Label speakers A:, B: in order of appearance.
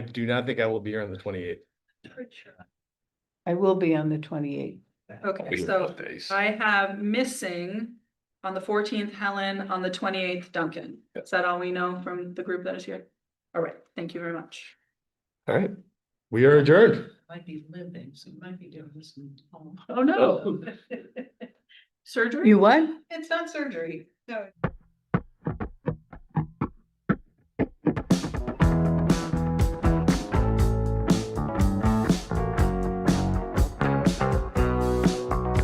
A: I do not think I will be here on the twenty eighth.
B: I will be on the twenty-eighth.
C: Okay, so I have missing on the fourteenth Helen, on the twenty-eighth Duncan.
A: Yep.
C: Is that all we know from the group that is here? All right, thank you very much.
A: All right, we are adjourned.
D: Might be living, so might be doing some home.
C: Oh, no, surgery?
B: You what?
D: It's not surgery, no.